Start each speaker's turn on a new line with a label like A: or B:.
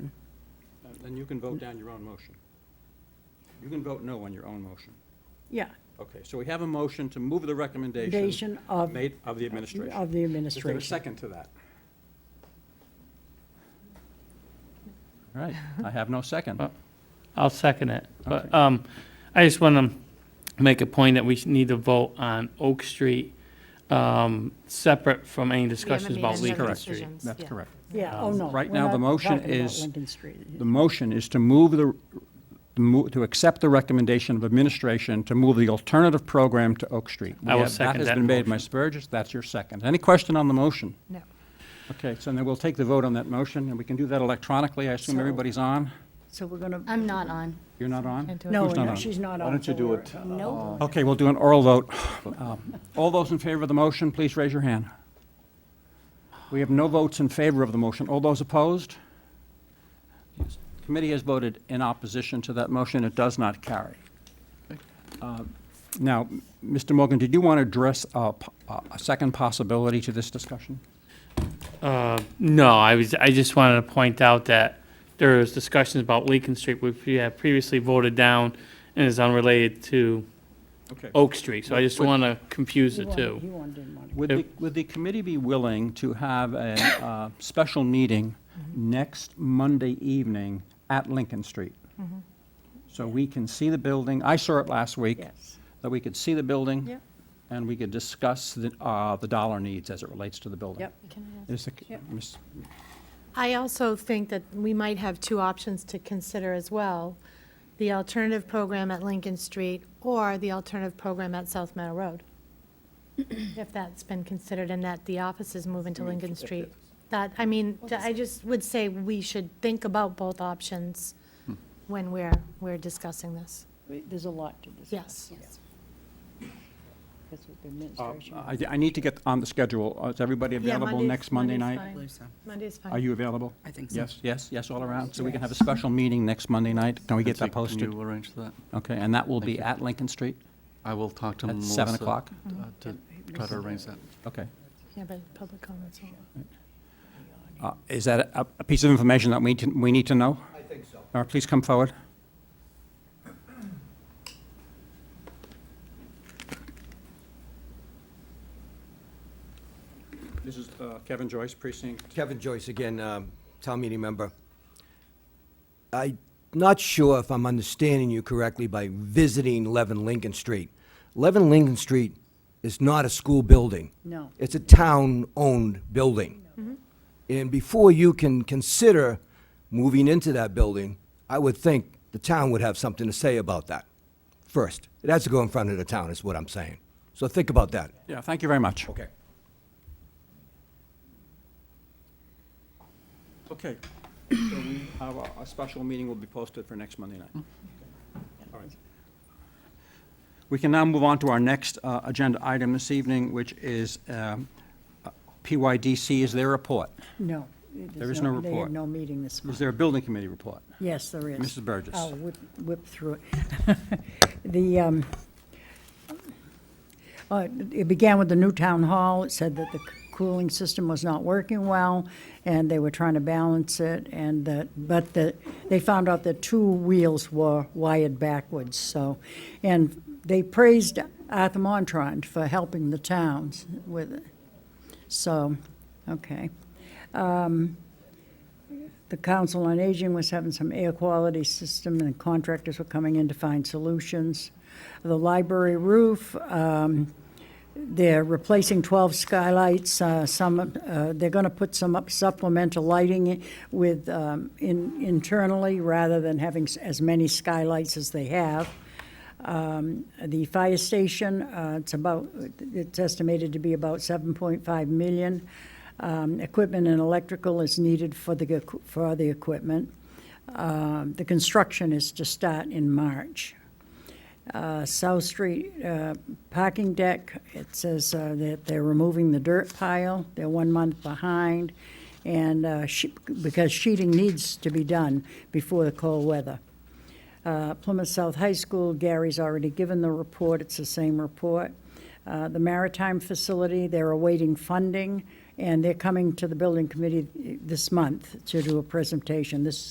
A: Uh, then you can vote down your own motion. You can vote no on your own motion.
B: Yeah,
A: Okay, so we have a motion to move the recommendation
B: Recommendation of-
A: made of the administration.
B: of the
A: Is there
B: administration.
A: a second to that? All right, I have no second.
C: I'll second it. But um, I just want to make a point that we sh- need to vote on Oak Street, um, separate from any discussions about
A: any other
C: Lincoln
A: Correct.
C: Street.
D: That's correct.
B: Yeah, oh, no.
A: Um, Right
B: we're
A: now, the
B: not
A: motion
B: talking about
A: is-
B: Lincoln Street.
A: The motion is to move the, to mo- to accept the recommendation of administration to move the alternative program to Oak Street. We
C: I will
A: have-
C: second
A: That has
C: that
A: been made by
C: motion.
A: Spurgis, that's your second. Any question on the motion?
D: No.
A: Okay, so then we'll take the vote on that motion, and we can do that electronically. I assume
B: So-
A: everybody's on?
B: So we're going to,
E: I'm not on.
A: You're not on?
B: no,
A: Who's not
B: no,
A: on?
B: she's not on.
F: Why don't you
B: so
F: do
B: we're-
F: it?
A: uh,
E: No.
A: Okay, we'll do an oral vote. Um, All those in favor of the motion, please raise your hand. We have no votes in favor of the motion. All those opposed? Committee has voted in opposition to that motion. It does not carry. Uh, Now, Mr. Morgan, did you want to address a p- a a second possibility to this discussion?
C: Uh, No, I was, I just wanted to point out that there was discussions about Lincoln Street, which we had previously voted down and is unrelated to
A: Okay.
C: Oak Street. So I just want to confuse
B: He
C: the
B: wanted, he
C: two.
B: wanted, didn't want
A: Would the, would the committee be willing to have a uh, special meeting next Monday evening at Lincoln Street? So we can see the building, I saw it last
B: it.
A: week.
B: Yes.
A: That we could see the building.
B: Yeah.
A: And we could discuss the, uh, the dollar needs as it relates to the building.
B: Yep.
A: Is the-
B: Yep.
A: Ms.
G: I also think that we might have two options to consider as well, the alternative program at Lincoln Street or the alternative program at South Meadow Road, if that's been considered and that the office is moving to Lincoln Street. That, I mean, I just would say we should think about both options
A: Hmm.
G: when we're, we're discussing this.
B: We- There's a lot to discuss.
G: Yes.
B: That's what the
A: Uh,
B: administration.
A: I, I need to get on the schedule. Uh, Is everybody available next Monday night?
H: I believe so.
G: Monday's
A: Are
G: fine.
A: you available?
H: I think so.
A: Yes, yes, yes, all around. So we can have a special meeting next Monday night. Can we get that posted?
I: Can you arrange that?
A: Okay, and that will be
I: Thank you.
A: at Lincoln Street?
I: I will talk to
A: At
I: Melissa.
A: seven o'clock?
I: uh, To try to arrange that.
A: Okay.
G: Yeah, but public comments.
A: Uh, Is that a, a piece of information that we, can- we need to know? I think so. All right, please come forward. This is uh, Kevin Joyce, precinct.
J: Kevin Joyce again, um, town meeting member. I'm not sure if I'm understanding you correctly by visiting 11 Lincoln Street. 11 Lincoln Street is not a school building.
B: No.
J: It's a town-owned building. And before you can consider moving into that building, I would think the town would have something to say about that first. It has to go in front of the town, is what I'm saying. So think about that.
A: Yeah, thank you very much.
J: Okay.
A: Okay. So we have a, a special meeting will be posted for next Monday night. All right. We can now move on to our next uh, agenda item this evening, which is um, uh, PYDC is their report.
B: No.
A: There
B: there's
A: is no
B: They
A: report.
B: had no meeting this
A: Is
B: month.
A: there a building committee report?
B: Yes, there is.
A: Mrs. Burgess.
B: I'll whip, whip through it. The, um, uh, it began with the new town hall. It said that the c- cooling system was not working well, and they were trying to balance it, and that, but the, they found out that two wheels were wired backwards, so. And they praised Arthur Montrond for helping the towns with it. So, okay. The Council on Aging was having some air quality system, and contractors were coming in to find solutions. The library roof, um, they're replacing 12 skylights, uh, some, uh, they're going to put some up supplemental lighting i- with, um, in- internally, rather than having s- as many skylights as they have. Um, The fire station, uh, it's about, it's estimated to be about 7.5 million. Um, Equipment and electrical is needed for the, equi- for the equipment. Um, The construction is to start in March. Uh, South Street uh, parking deck, it says uh, that they're removing the dirt pile. They're one month behind, and uh, she- because sheeting needs to be done before the cold weather. Uh, Plymouth South High School, Gary's already given the report, it's the same report. Uh, The Maritime Facility, they're awaiting funding, and they're coming to the building committee this month to do a presentation. This